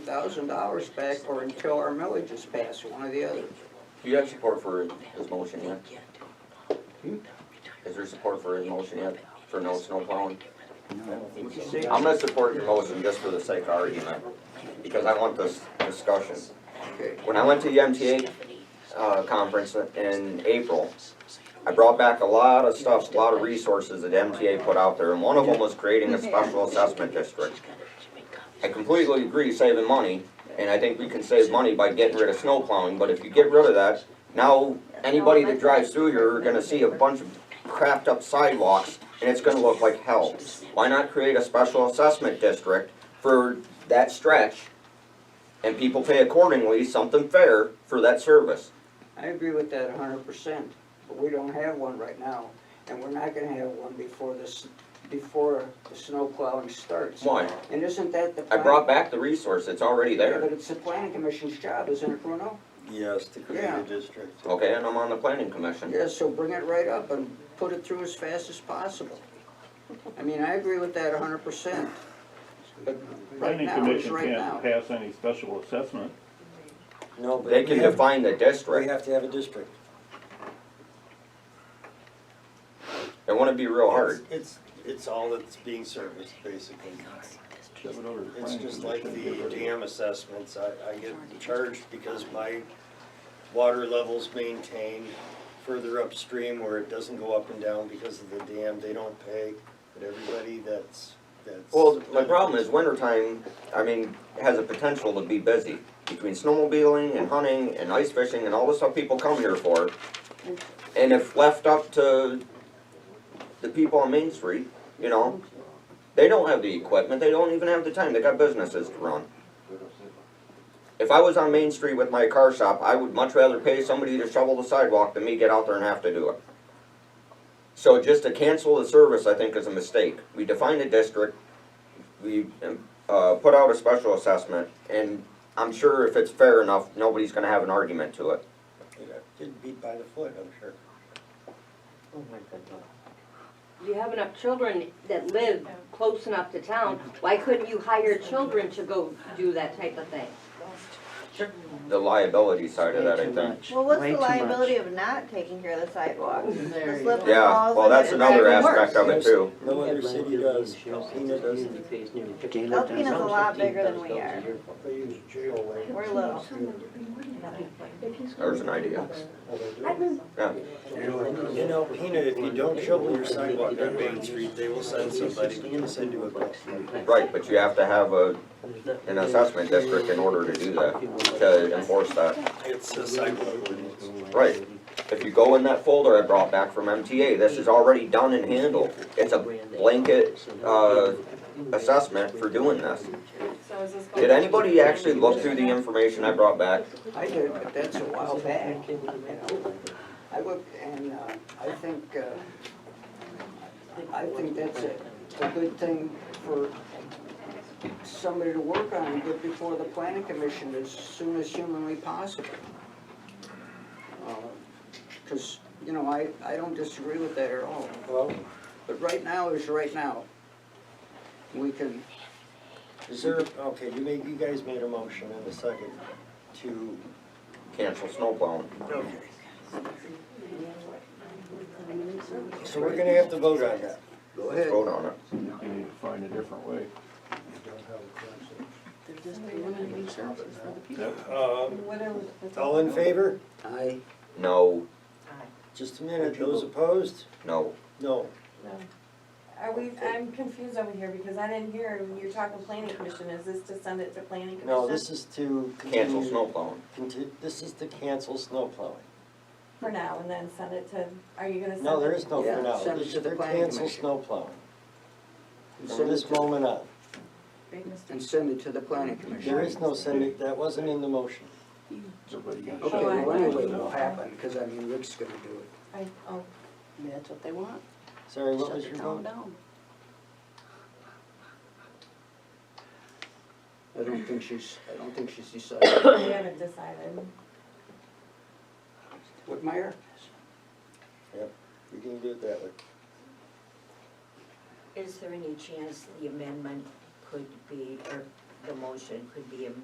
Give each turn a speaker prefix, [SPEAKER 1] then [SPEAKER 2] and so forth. [SPEAKER 1] thousand dollars back or until our millage is passed, one or the other.
[SPEAKER 2] Do you have support for his motion yet? Is there support for his motion yet, for no snow plowing?
[SPEAKER 1] What'd you say?
[SPEAKER 2] I'm gonna support your motion just for the sake of argument, because I want this discussion.
[SPEAKER 1] Okay,
[SPEAKER 2] When I went to the MTA, uh, conference in April, I brought back a lot of stuff, a lot of resources that MTA put out there, and one of them was creating a special assessment district. I completely agree saving money, and I think we can save money by getting rid of snow plowing, but if you get rid of that, now anybody that drives through here are gonna see a bunch of crapped up sidewalks, and it's gonna look like hell. Why not create a special assessment district for that stretch, and people pay accordingly, something fair for that service?
[SPEAKER 1] I agree with that hundred percent, but we don't have one right now, and we're not gonna have one before this, before the snow plowing starts.
[SPEAKER 2] Why?
[SPEAKER 1] And isn't that the?
[SPEAKER 2] I
[SPEAKER 1] plan-
[SPEAKER 2] brought back the resource, it's already
[SPEAKER 1] Yeah, But
[SPEAKER 2] there.
[SPEAKER 1] it's the planning commission's job, isn't it, Bruno?
[SPEAKER 3] Yes, to create
[SPEAKER 1] Yeah.
[SPEAKER 3] a district.
[SPEAKER 2] Okay, and I'm on the planning commission.
[SPEAKER 1] Yeah, so bring it right up and put it through as fast as possible. I mean, I agree with that hundred percent, but right
[SPEAKER 4] Planning
[SPEAKER 1] now is
[SPEAKER 4] commission
[SPEAKER 1] right now.
[SPEAKER 4] can't pass any special assessment.
[SPEAKER 3] No, but
[SPEAKER 2] They can
[SPEAKER 3] we have-
[SPEAKER 2] define the
[SPEAKER 3] We
[SPEAKER 2] district.
[SPEAKER 3] have to have a district.
[SPEAKER 2] It wouldn't be real hard.
[SPEAKER 3] It's, it's all that's being serviced, basically.
[SPEAKER 4] Shove it over to
[SPEAKER 3] It's
[SPEAKER 4] planning
[SPEAKER 3] just like
[SPEAKER 4] commission,
[SPEAKER 3] the
[SPEAKER 4] get rid of it.
[SPEAKER 3] dam assessments, I, I get charged because my water level's maintained further upstream where it doesn't go up and down because of the dam, they don't pay, but everybody that's, that's.
[SPEAKER 2] Well, my problem is wintertime, I mean, has a potential to be busy. Between snowmobiling and hunting and ice fishing and all the stuff people come here for. And if left up to the people on Main Street, you know, they don't have the equipment, they don't even have the time, they got businesses to run. If I was on Main Street with my car shop, I would much rather pay somebody to shovel the sidewalk than me get out there and have to do it. So just to cancel the service, I think is a mistake. We define a district, we, uh, put out a special assessment, and I'm sure if it's fair enough, nobody's gonna have an argument to it.
[SPEAKER 3] Get beat by the foot, I'm sure.
[SPEAKER 5] You have enough children that live close enough to town, why couldn't you hire children to go do that type of thing?
[SPEAKER 2] The liability side of that, I
[SPEAKER 6] Way too
[SPEAKER 2] think.
[SPEAKER 6] much.
[SPEAKER 7] Well, what's
[SPEAKER 6] Way
[SPEAKER 7] the
[SPEAKER 6] too much.
[SPEAKER 7] liability of not taking care of the sidewalks?
[SPEAKER 6] There
[SPEAKER 7] The
[SPEAKER 6] you go.
[SPEAKER 7] slip and
[SPEAKER 2] Yeah,
[SPEAKER 7] falls
[SPEAKER 2] well,
[SPEAKER 7] and
[SPEAKER 2] that's
[SPEAKER 7] it's
[SPEAKER 2] another
[SPEAKER 7] even worse.
[SPEAKER 2] aspect of it too.
[SPEAKER 3] No other city does, Alpena doesn't.
[SPEAKER 6] doesn't.
[SPEAKER 7] Alpena's a lot bigger than we are.
[SPEAKER 3] They use jail land.
[SPEAKER 7] We're little.
[SPEAKER 2] There's an idea. Yeah,
[SPEAKER 3] In Alpena, if you don't shovel your sidewalk on Main Street, they will send somebody to send you a bill.
[SPEAKER 2] right, but you have to have a, an assessment district in order to do that, to enforce that.
[SPEAKER 3] It's a sidewalk ordinance.
[SPEAKER 2] Right. If you go in that folder I brought back from MTA, this is already done and handled. It's a blanket, uh, assessment for doing this.
[SPEAKER 8] So is this going?
[SPEAKER 2] Did anybody actually look through the information I brought back?
[SPEAKER 1] I did, but that's a while back. you know. I look, and uh, I think, uh, I think that's a, a good thing for somebody to work on, but before the planning commission, as soon as humanly possible. Because, you know, I, I don't disagree with that at all,
[SPEAKER 3] Well,
[SPEAKER 1] but right now is right now. We can,
[SPEAKER 3] is there, okay, you made, you guys made a motion in a second to,
[SPEAKER 2] Cancel snow plowing.
[SPEAKER 3] so we're gonna have to vote on that.
[SPEAKER 1] go
[SPEAKER 2] Let's
[SPEAKER 1] ahead,
[SPEAKER 2] vote on it.
[SPEAKER 4] You need to find a different way. That-
[SPEAKER 3] Um, all in favor?
[SPEAKER 1] I,
[SPEAKER 2] No,
[SPEAKER 3] Just a minute, those opposed?
[SPEAKER 2] no.
[SPEAKER 3] No.
[SPEAKER 8] Are we, I'm confused over here because I didn't hear, you're talking planning commission, is this to send it to planning commission?
[SPEAKER 3] No, this is to
[SPEAKER 2] Cancel
[SPEAKER 3] continue.
[SPEAKER 2] snow plowing.
[SPEAKER 3] conti- This is to cancel snow plowing.
[SPEAKER 8] For now, and then send it to, are you gonna send?
[SPEAKER 3] No,
[SPEAKER 8] it-
[SPEAKER 3] there is no
[SPEAKER 1] Yeah,
[SPEAKER 3] for now.
[SPEAKER 1] send it to the
[SPEAKER 3] They're
[SPEAKER 1] planning
[SPEAKER 3] cancel
[SPEAKER 1] commission.
[SPEAKER 3] snow plowing. From
[SPEAKER 1] Send it
[SPEAKER 3] this
[SPEAKER 1] to-
[SPEAKER 3] moment on.
[SPEAKER 1] and send it to the planning commission.
[SPEAKER 3] There is no sending, that wasn't in the motion.
[SPEAKER 4] everybody got
[SPEAKER 1] Okay,
[SPEAKER 4] shot.
[SPEAKER 1] well, anyway, it'll happen, because I mean, Rick's gonna do it.
[SPEAKER 8] I, oh,
[SPEAKER 6] That's what they want,
[SPEAKER 3] Sorry, what
[SPEAKER 6] shut
[SPEAKER 3] was
[SPEAKER 6] the
[SPEAKER 3] your
[SPEAKER 6] town
[SPEAKER 3] vote?
[SPEAKER 6] down.
[SPEAKER 1] I don't think she's, I don't think she's decided.
[SPEAKER 8] we haven't decided.
[SPEAKER 1] What, Meyer?
[SPEAKER 3] We can do it that way.
[SPEAKER 9] Is there any chance the amendment could be, or the motion could be amended